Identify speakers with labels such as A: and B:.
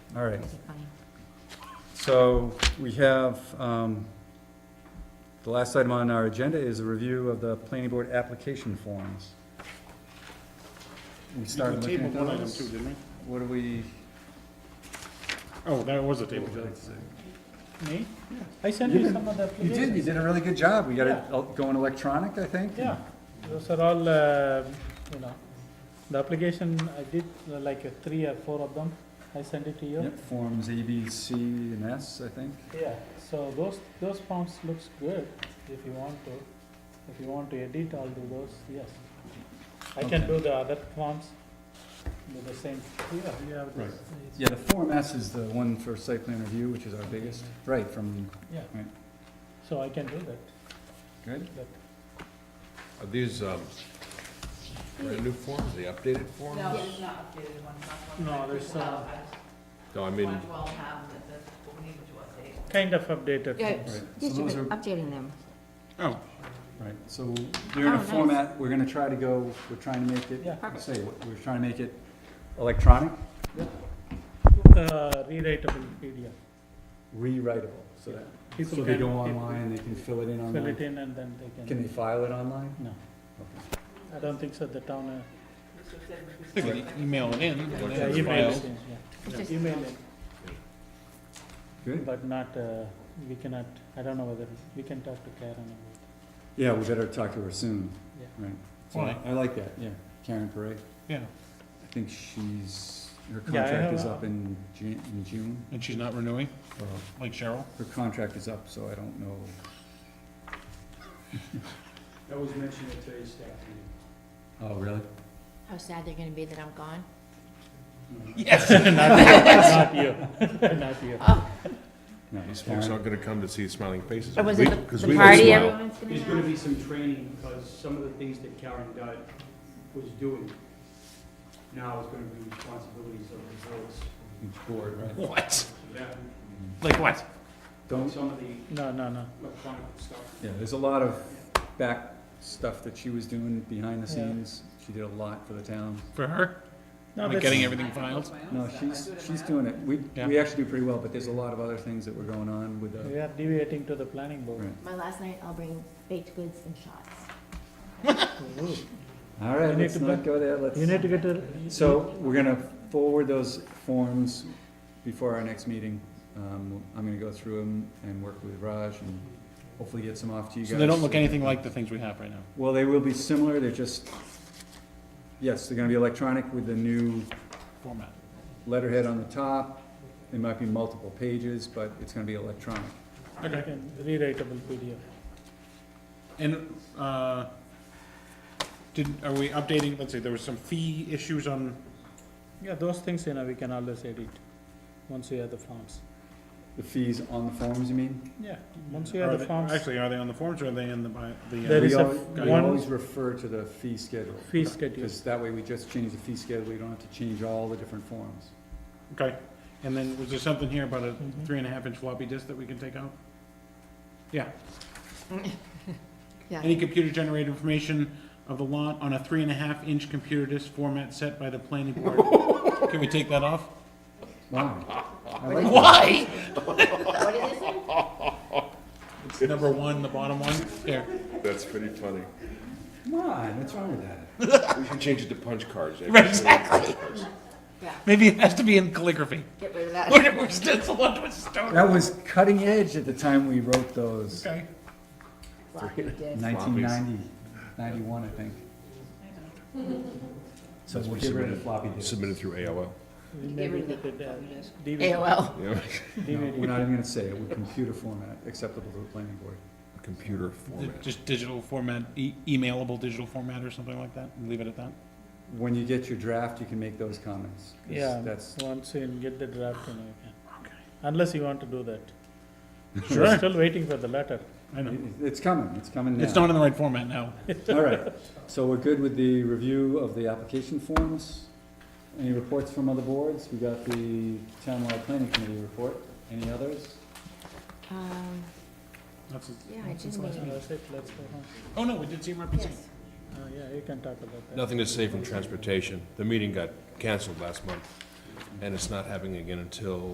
A: all right.
B: Funny.
A: So we have, um, the last item on our agenda is a review of the planning board application forms. We
C: You
A: started looking
C: tabled
A: at
C: one item too,
A: those.
C: didn't we?
A: What do we?
C: Oh, that was a table.
D: Me? I sent you some of the
A: You did, you
D: applications.
A: did a really good job. We got it all going electronic, I think.
D: Yeah, those are all, uh, you know, the application, I did uh, like uh, three or four of them. I sent it to you.
A: Yep, forms A, B, C, and S, I think.
D: Yeah, so those, those forms looks good if you want to. If you want to edit, I'll do those, yes. I can
A: Okay.
D: do the other forms, do the same. Yeah, you have this. It's-
A: Yeah, the Form S is the one for site plan review, which is our biggest, right, from,
D: Yeah,
A: Right.
D: so I can do that,
A: good?
D: that.
E: Are these, um, brand new forms, the updated forms?
B: No, it's not updated one.
D: No, there's, uh,
E: No, I mean,
B: One twelve have that, that's what we needed to update.
D: Kind of updated.
B: Yeah,
D: forms.
A: Right, so
B: yes, you've
A: those
B: been
A: are,
B: updating them.
C: Oh,
A: right, so they're in
B: Oh,
A: a
B: nice.
A: format, we're gonna try to go, we're trying to make it,
D: Yeah.
A: I say, we're trying to make it electronic,
D: Uh, rewritable PDF.
A: rewritable, so that,
D: People
A: so they
D: can-
A: go
D: people
A: online, they can fill it in
D: Fill it
A: online.
D: in and then they
A: Can
D: can,
A: they file it online?
D: no,
A: Okay.
D: I don't think so, the town, uh,
C: they can email it in and
D: yeah,
C: then
D: email it,
C: file.
D: in,
B: It's
D: yeah.
B: just-
D: Email it,
A: Good,
D: but not, uh, we cannot, I don't know whether, we can talk to Karen about it.
A: yeah, we better talk to her soon,
D: Yeah.
A: right? So
C: Why?
A: I like that, yeah, Karen Perret,
C: Yeah,
A: I think she's, her
D: Yeah, I
A: contract
D: have
A: is
D: a-
A: up in Ju- in June,
C: and she's not renewing,
A: or
C: like Cheryl?
A: her contract is up, so I don't know.
F: That was mentioned at today's staff meeting.
A: Oh, really?
B: How sad they're gonna be that I'm gone.
C: Yes.
D: Not you, not you.
A: No,
E: these folks
A: Karen,
E: aren't gonna come to see smiling faces.
B: Or was
E: We-
B: it
E: 'cause
B: the,
E: we
B: the
E: don't
B: party
E: smile.
B: everyone's gonna
F: There's gonna
B: have?
F: be some training, because some of the things that Karen Dodd was doing now is gonna be responsibilities of the boards.
A: each board, right?
C: What?
F: That,
C: Like what?
A: Don't,
F: some of the
D: No, no, no,
F: electronic stuff.
A: yeah, there's a lot of back stuff that she was doing behind the
D: Yeah.
A: scenes. She did a lot for the town.
C: For her?
D: no,
C: Like
D: that's,
C: getting everything filed?
A: No, she's, she's doing it. We,
C: Yeah.
A: we actually do pretty well, but there's a lot of other things that were going on with
D: we
A: the,
D: are deviating to the planning board.
A: Right.
B: My last night, I'll bring baked goods and shots.
D: Ooh,
A: all
D: You
A: right,
D: need
A: let's
D: to
A: not
D: put-
A: go there, let's.
D: You need to get a.
A: So, we're gonna forward those forms before our next meeting. Um, I'm gonna go through them and work with Raj and hopefully get some off to you guys.
C: So they don't look
A: so-
C: anything like the things we have right now.
A: Well, they will be similar, they're just, yes, they're gonna be electronic with the new
C: Format.
A: letterhead on the top. It might be multiple pages, but it's gonna be electronic.
D: you
C: Okay.
D: can Rewritable PDF.
C: And, uh, did, are we updating, let's see, there was some fee issues on,
D: Yeah, those things, you know, we can always edit, once we have the forms.
A: The fees on the forms, you mean?
D: Yeah, once we
C: are
D: have the
C: they-
D: forms,
C: Actually, are they on the forms or are they in the, bi- the? uh,
D: There
A: We
D: is a
A: al-
D: f-
A: We
D: one-
A: always refer to the fee schedule,
D: fee schedule.
A: because that way we just change the fee schedule, we don't have to change all the different forms.
C: Okay, and then was there something here about a
D: Mhm.
C: three and a half inch floppy disk that we can take out? Yeah.
B: Yeah.
C: Any computer generated information of the lot on a three and a half inch computer disk format set by the planning board. Can we take that off?
A: Wow. I like that.
C: Why?
B: What is this in?
C: It's number one, the bottom one, there.
E: That's pretty funny.
A: Come on, what's wrong with that?
E: We should change it to punch cards.
C: Right, exactly.
B: Yeah,
C: Maybe it has to be in calligraphy.
B: get rid of that.
C: We're we're stenciled onto a stone.
A: That was cutting edge at the time we wrote those,
C: Okay,
B: Floppy disk.
A: 1990, 91, I think. So we'll get rid of floppy disks.
E: Submitted through AOL.
D: We
B: Get
D: maybe
B: rid of
D: we could, uh, DVD.
B: AOL.
E: Yeah,
A: No, We're
D: DVD.
A: not even gonna say it, with computer format acceptable to the planning board.
E: computer
C: Di-
E: format.
C: just digital format, e- emailable digital format or something like that, leave it at that.
A: When you get your draft, you can make those comments. 'cause
D: Yeah,
A: That's,
D: once you get the draft, you know, you can. Unless you want to do that. We're
C: Sure.
D: Still waiting for the letter.
C: I know,
A: it- it's coming, it's coming now.
C: it's not in the right format now.
A: All right, so we're good with the review of the application forms. Any reports from other boards? We got the townwide planning committee report. Any others?
B: Um,
C: That's it.
B: yeah, I did
D: So
B: mean,
D: That's it, let's go home.
C: Oh, no, we did see him represent.
B: yes.
D: Uh, yeah, you can talk about that.
E: Nothing to say from transportation. The meeting got canceled last month. and it's not happening again until